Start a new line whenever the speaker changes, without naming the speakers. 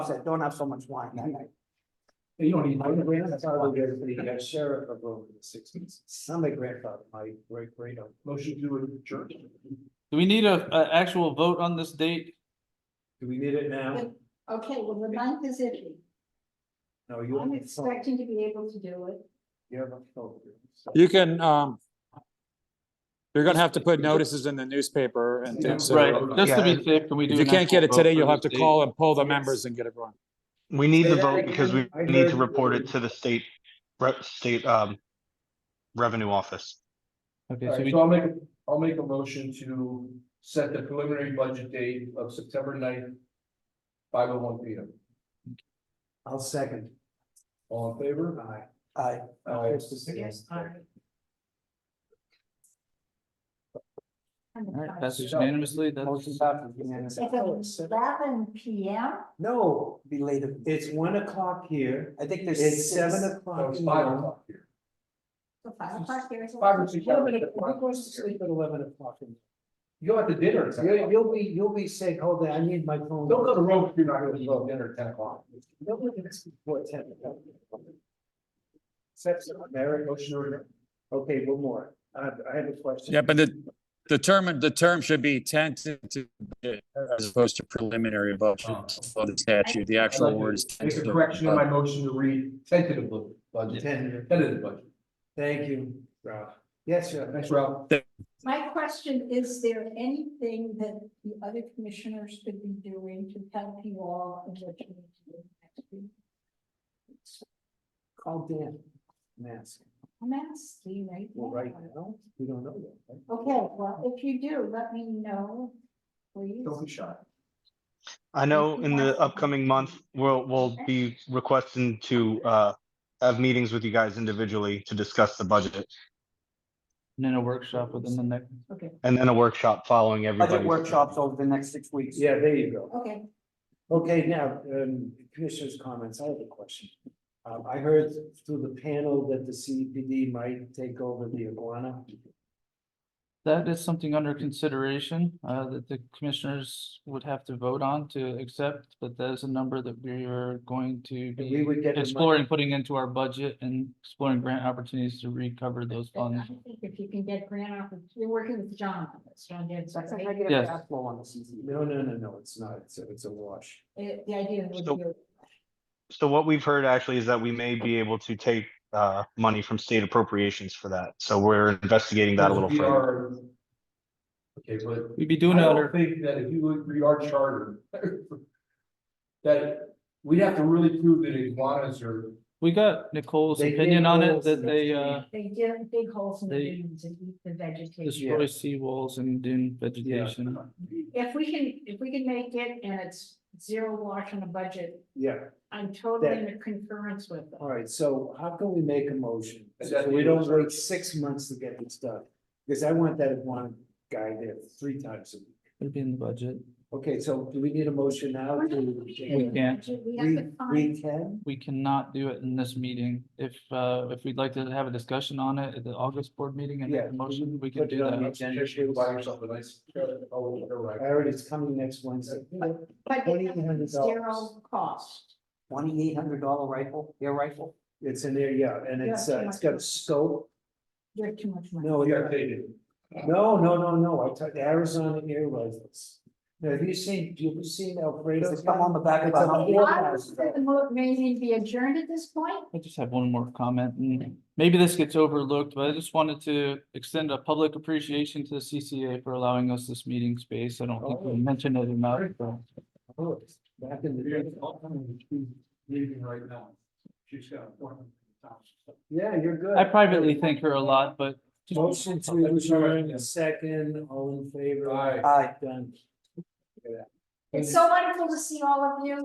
said, don't have so much wine that night.
You don't need my grandfather, that's all I get for the uh, sheriff of over the sixties, some of my grandfather, my great great. Motion to adjourn.
Do we need a, a actual vote on this date?
Do we need it now?
Wait. Okay, well, the ninth is iffy.
No, you.
I'm
have a phone.
expecting to be able to do it.
You have a phone. So-
You can, um. You're gonna have to put notices in the newspaper and things,
Right,
so uh,
just to be safe, can we do?
if you
an
can't
actual
get it
vote
today,
for
you'll
this
have to
date?
call and pull the members and get it run.
We need
Say
the
that
vote because we
again. I
need
heard
to report it
you.
to the state, re- state, um, revenue office.
Okay, so
Alright,
we,
so I'll make, I'll make a motion to set the preliminary budget date of September 9th, Five oh one P M.
I'll second.
All in favor?
Aye. Aye.
Aye.
Yes,
And the
all right,
time
that's
is
unanimously, that's.
Motion passes unanimously.
It's eleven P M.
No, belated.
It's one o'clock here,
I think there's.
it's
six.
seven
No,
o'clock.
Oh, it's
in
five
the-
o'clock here.
The five o'clock here is.
Five or six
Wait a
hours.
minute, Who goes to sleep at eleven o'clock? in-
You go out to dinner. at 10
You'll,
o'clock.
you'll be, you'll be saying, hold on, I need my phone.
Don't go to Rome if you're not gonna go to dinner at ten o'clock.
Nobody gets before ten. Set some merit motion order. Okay, one more. I, I have a question.
Yeah, but the, the term, the term should be tentative as opposed to preliminary vote of the statute. The actual word is
Make a
tentative.
correction in my motion to read tentatively budget,
Tentative.
tentative budget.
Thank you, Ralph. Yes, sir.
Thanks, Ralph.
My question, is there anything that the other commissioners could be doing to help you all in what you need to do next week?
Call Dan. and ask.
I'm asking right
Well, right
now.
now, we don't know yet. right?
Okay, well, if you do, let me know, please.
Don't be shy.
I know in the upcoming month, we'll, we'll be requesting to, uh, have meetings with you guys individually to discuss the budget
And then a workshop within the next.
Okay,
and then a workshop following
Other
everybody.
workshops over the next six weeks.
Yeah, there you go.
okay.
Okay, now, um, commissioners' comments, I have a question. Um, I heard through the panel that the CPD might take over the iguana.
That is something under consideration, uh, that the commissioners would have to vote on to accept, but that is a number that we are going to
And we
be
would get. the money.
exploring, putting into our budget and exploring grant opportunities to recover those
But I
funds.
think if you can get grant off, you're working with John on this, John Gibbs,
That's a
right?
negative
Yes.
cash flow on the CCD.
No, no, no, no, it's not. It's, a- it's a wash.
Uh, The idea would
So-
be,
So what we've heard actually is that we may be able to take, uh, money from state appropriations for that. So we're investigating that a little
We
further.
are- Okay, but
We'd be doing
I
it
don't
under,
Think that if you look through our charter. That we'd have to really prove that iguanas are,
we got Nicole's
They dig
opinion on it,
holes in
that
the
they,
tree.
uh,
they dig big holes in the
They-
dunes and eat the E. vegetation.
destroy seawalls and dune
yeah.
vegetation.
If we can, if we can make it and it's zero wash on a budget,
Yeah,
I'm totally
That-
in concurrence with them.
all right, so how can we make a motion?
Is
So
that
we
the-
don't wait six months to get this done, because I want that iguana guy there three times a week.
It'd be in the budget.
Okay, so do we need a motion now?
We're
to-
not in the
can't.
budget, We have
We,
to find,
we can?
We cannot do it in this meeting. If, uh, if we'd like to have a discussion on it at the August board meeting and make
Yeah,
a
we
motion, we can
put
do
it on the
that.
agenda.
Just you buy yourself a nice. Oh, you're
I
right.
heard it's coming next Wednesday.
but it has to be
$2,800.
zero cost.
Twenty-eight hundred dollar rifle, air rifle.
It's in there, yeah, and it's, uh, it's got a scope.
You have too much money.
No,
You
it-
got dated.
no, no, no, no, I took Arizona air rifles. Now, have you seen, have you seen Alfredo?
It's come on the back of
It's
a
a
Humvee.
four
I would
thousand
say the mo- meeting be adjourned at this point.
I just have one more comment and maybe this gets overlooked, but I just wanted to extend a public appreciation to the CCA for allowing us this meeting space. I don't think
Oh.
we mentioned it enough. so
dollars. Oh, Back in the
You're
day.
in the bottom, she's Leaving right now. She's got a four hundred thousand.
Yeah, you're good.
I privately thank her a lot, but just-
Motion to adjourn, second, all in favor?
Aye.
Aye.
Done.
It's so wonderful to see all of you.